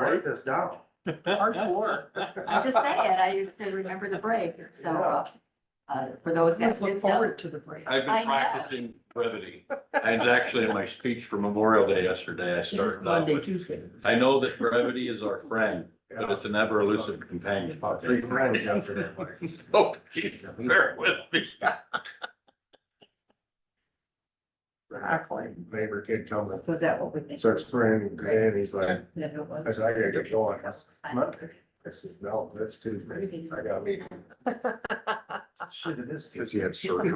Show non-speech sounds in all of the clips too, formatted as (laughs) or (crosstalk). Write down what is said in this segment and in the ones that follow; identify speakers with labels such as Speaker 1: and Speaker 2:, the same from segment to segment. Speaker 1: write this down.
Speaker 2: Hardcore.
Speaker 3: I just say it, I used to remember the break, so, uh, uh, for those that
Speaker 2: Let's look
Speaker 3: didn't know.
Speaker 2: forward to the break.
Speaker 4: I've
Speaker 3: I know.
Speaker 4: been practicing brevity. And it's actually in my speech for Memorial Day yesterday, I
Speaker 2: It's
Speaker 4: started off
Speaker 2: Monday,
Speaker 4: with,
Speaker 2: Tuesday.
Speaker 4: I know that brevity is our friend, but it's an ever elusive companion.
Speaker 1: About three grand yesterday.
Speaker 4: (laughs) Oh, bear with me.
Speaker 2: Exactly.
Speaker 1: Neighbor kid comes
Speaker 3: Was that what we think?
Speaker 1: and starts grinning and grinning. He's like,
Speaker 3: That it was?
Speaker 1: I said, I gotta get going. It's Monday. I says, no, that's Tuesday. I got a meeting. Shit, it is. (laughs) Cause he had surgery.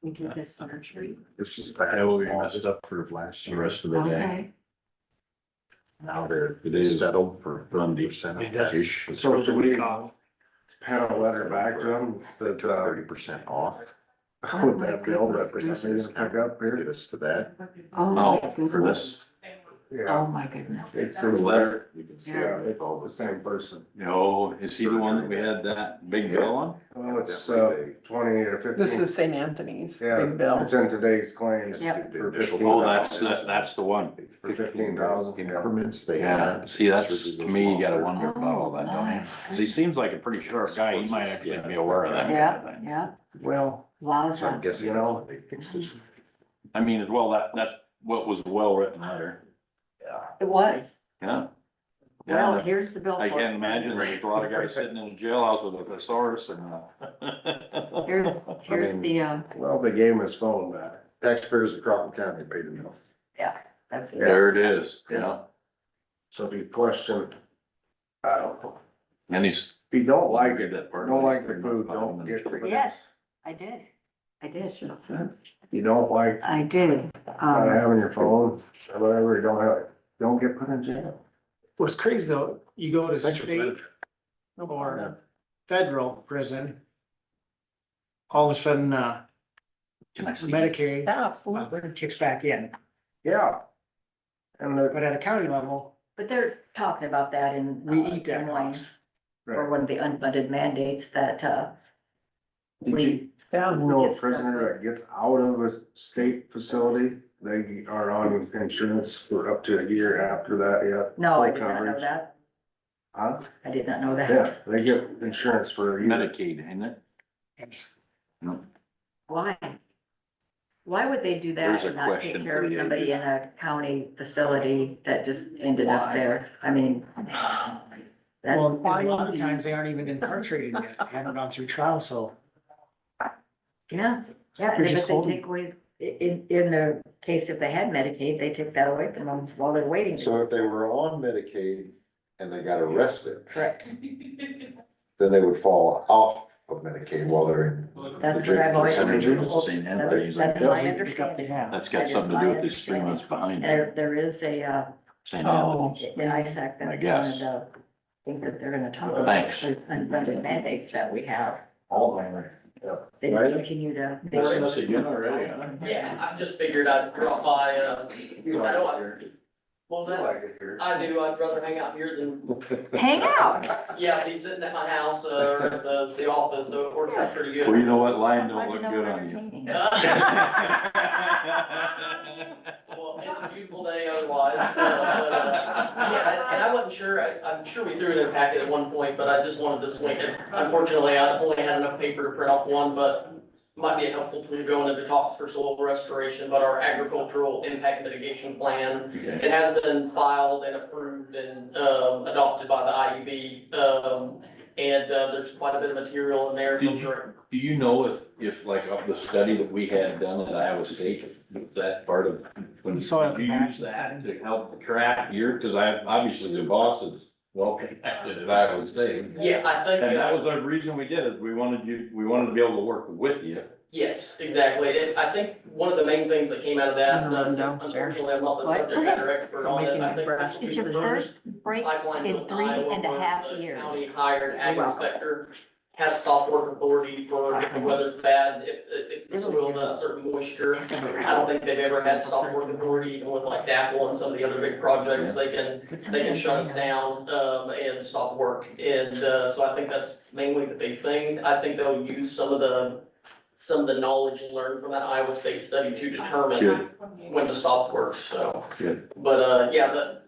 Speaker 3: We did this surgery.
Speaker 1: It's just.
Speaker 4: I will be messed up for
Speaker 1: last
Speaker 4: the rest of the day.
Speaker 3: Okay.
Speaker 4: Now they're, it is settled for Monday, Sunday-ish.
Speaker 1: So do we Pat a letter back to him that, uh, (laughs)
Speaker 4: Thirty percent off,
Speaker 1: with that bill that for some reason pick up
Speaker 4: get
Speaker 1: here.
Speaker 4: us to that. Oh,
Speaker 3: Oh, my
Speaker 4: for
Speaker 3: goodness.
Speaker 4: this
Speaker 1: Yeah.
Speaker 3: Oh, my goodness.
Speaker 1: It's a
Speaker 4: for the
Speaker 1: letter.
Speaker 4: letter, you can see.
Speaker 1: Yeah, it's all the same person.
Speaker 4: No, is he the one that we had that big bill on?
Speaker 1: Well, it's, uh, twenty or fifteen.
Speaker 2: This is St. Anthony's,
Speaker 1: Yeah,
Speaker 2: Big Bill.
Speaker 1: It's in today's claims.
Speaker 3: Yep.
Speaker 1: for
Speaker 4: Oh, that's, that's,
Speaker 1: 15,000.
Speaker 4: that's the one.
Speaker 1: For fifteen thousand.
Speaker 5: increments they
Speaker 4: Yeah,
Speaker 5: had.
Speaker 4: see, that's, to me, you gotta wonder
Speaker 3: Oh,
Speaker 4: about all that, don't you?
Speaker 3: my.
Speaker 4: 'Cause he Oh. seems like a pretty sharp guy, he might actually be aware of that. kind of
Speaker 3: Yeah,
Speaker 4: thing.
Speaker 3: yeah.
Speaker 1: Well,
Speaker 5: So I'm
Speaker 3: Wowza.
Speaker 5: guessing,
Speaker 1: You
Speaker 5: you
Speaker 1: know,
Speaker 5: know,
Speaker 4: I mean, as well, that, that's what was a well-written letter,
Speaker 3: It was.
Speaker 4: yeah.
Speaker 3: Well,
Speaker 4: Yeah,
Speaker 3: here's the bill.
Speaker 4: I can't imagine, there's a lot of guys sitting in a jailhouse with a thesaurus and. a- (laughs)
Speaker 3: Here's,
Speaker 5: I
Speaker 3: here's
Speaker 5: mean-
Speaker 3: the, uh,
Speaker 1: well, they gave him his phone back.
Speaker 5: taxpayers of Crawford County paid them off.
Speaker 3: that's-
Speaker 4: There it is, yeah,
Speaker 1: So if you question, I don't know.
Speaker 4: and he's.
Speaker 1: If you don't like it,
Speaker 4: that part.
Speaker 1: don't like the food, don't get it.
Speaker 3: yes, I did. I did.
Speaker 1: You don't like
Speaker 3: I did.
Speaker 1: not
Speaker 3: Um,
Speaker 1: having your phone or whatever, you don't have, it, don't get put in jail.
Speaker 6: What's crazy though, you go to
Speaker 5: Thanks for
Speaker 6: state or federal prison. All of a sudden, uh,
Speaker 4: Can I see?
Speaker 6: Medicaid uh,
Speaker 2: Yeah, absolutely.
Speaker 6: kicks back in,
Speaker 1: Yeah. And the,
Speaker 6: but at a county level,
Speaker 3: but they're talking about that in.
Speaker 6: we
Speaker 2: Oh,
Speaker 3: uh,
Speaker 6: eat that
Speaker 3: Des Moines,
Speaker 6: cost.
Speaker 3: Or one of the unfunded mandates that, uh,
Speaker 1: did you
Speaker 2: Yeah.
Speaker 1: know a prisoner that gets out of a state facility, they are on insurance for up to a year after that, yeah?
Speaker 3: no, I
Speaker 1: Full
Speaker 3: did not know
Speaker 1: coverage.
Speaker 3: that.
Speaker 1: Huh?
Speaker 3: I did not know that.
Speaker 1: Yeah, they get insurance for a year.
Speaker 4: Medicaid, ain't it?
Speaker 3: Why? Why would they do that
Speaker 4: There's a
Speaker 3: and not take
Speaker 4: question
Speaker 3: care
Speaker 4: for
Speaker 3: of
Speaker 4: you.
Speaker 3: somebody in a county facility that just ended up there? I mean. that-
Speaker 6: Well, a lot of times they
Speaker 2: (laughs)
Speaker 6: aren't even incarcerated yet, they haven't gone through trial, so.
Speaker 3: Yeah, yeah,
Speaker 6: They're
Speaker 3: and if
Speaker 6: just
Speaker 3: they
Speaker 6: holding.
Speaker 3: take away, i- in, in the case if they had Medicaid, they took that away from them while they're waiting.
Speaker 5: So if they were on Medicaid and they got arrested,
Speaker 3: Correct,
Speaker 5: then they would fall off of Medicaid while they're
Speaker 3: that's what I've always.
Speaker 4: Percentage of the St. Anthony's, like,
Speaker 3: That's my understanding,
Speaker 4: That's got something to do with these three months behind
Speaker 3: there,
Speaker 4: it,
Speaker 3: there is a, uh,
Speaker 4: St. Anthony's.
Speaker 3: in ISAC,
Speaker 4: I
Speaker 3: that's one of
Speaker 4: guess.
Speaker 3: the things that they're gonna talk about.
Speaker 4: Thanks.
Speaker 3: Those unfunded mandates that we have,
Speaker 1: All my, yeah.
Speaker 3: they
Speaker 4: Right.
Speaker 3: continue to.
Speaker 4: Missing us again already, huh?
Speaker 7: Yeah, I just figured I'd drop by, uh,
Speaker 1: You
Speaker 7: I
Speaker 1: like
Speaker 7: know, I-
Speaker 1: it here.
Speaker 7: what was
Speaker 1: You
Speaker 7: that?
Speaker 1: like it here.
Speaker 7: I do, I'd rather hang out here than,
Speaker 3: Hang out,
Speaker 7: yeah, be sitting at my house, uh, or at the, the office, so it works out pretty
Speaker 4: Well,
Speaker 7: good.
Speaker 4: you know what, lying
Speaker 3: Why
Speaker 4: don't
Speaker 3: do
Speaker 4: look
Speaker 3: you know
Speaker 4: good
Speaker 3: we're
Speaker 4: on you.
Speaker 3: entertaining?
Speaker 7: (laughs) Well, it's a beautiful day otherwise, uh, but, uh, yeah, and I wasn't sure, I, I'm sure we threw it in a packet at one point, but I just wanted to swing it. Unfortunately, I only had enough paper to print off one, but might be helpful to go into talks for soil restoration, but our agricultural impact mitigation plan
Speaker 4: Okay.
Speaker 7: It has been filed and approved and, um, adopted by the IUB, um, and, uh, there's quite a bit of material in there.
Speaker 4: Did you- Do you know if, if like of the study that we had done at Iowa State, was that part of, when
Speaker 6: Soil
Speaker 4: you use that to help craft your, cause I, obviously the boss is well connected at Iowa State.
Speaker 7: Yeah, I think.
Speaker 4: And that was the reason we did it, we wanted you, we wanted to be able to work with you.
Speaker 7: Yes, exactly. It- I think one of the main things that came out of that,
Speaker 2: I'm gonna run
Speaker 7: uh,
Speaker 2: downstairs.
Speaker 7: unfortunately, I'm not the
Speaker 3: What?
Speaker 7: subject matter expert on it,
Speaker 2: Making
Speaker 7: I
Speaker 2: that
Speaker 7: think
Speaker 2: brush.
Speaker 7: this will
Speaker 3: It's
Speaker 7: be the
Speaker 3: your first
Speaker 7: first
Speaker 3: breaks
Speaker 7: pipeline
Speaker 3: in
Speaker 7: in
Speaker 3: three
Speaker 7: Iowa
Speaker 3: and a
Speaker 7: where
Speaker 3: half
Speaker 7: the
Speaker 3: years.
Speaker 7: County hired ag
Speaker 3: You're welcome.
Speaker 7: inspector has stop work authority for if the weather's bad, if, if if the soil's not certain moisture.
Speaker 4: (laughs)
Speaker 7: I don't think they've ever had stop work authority, even with like DAPL and some of the other big projects, they can, they can shut us down, um, and stop work. And, uh, so I think that's mainly the big thing. I think they'll use some of the, some of the knowledge learned from that Iowa State study to determine
Speaker 4: Good.
Speaker 7: when to stop work, so.
Speaker 4: Good.
Speaker 7: But, uh, yeah, the,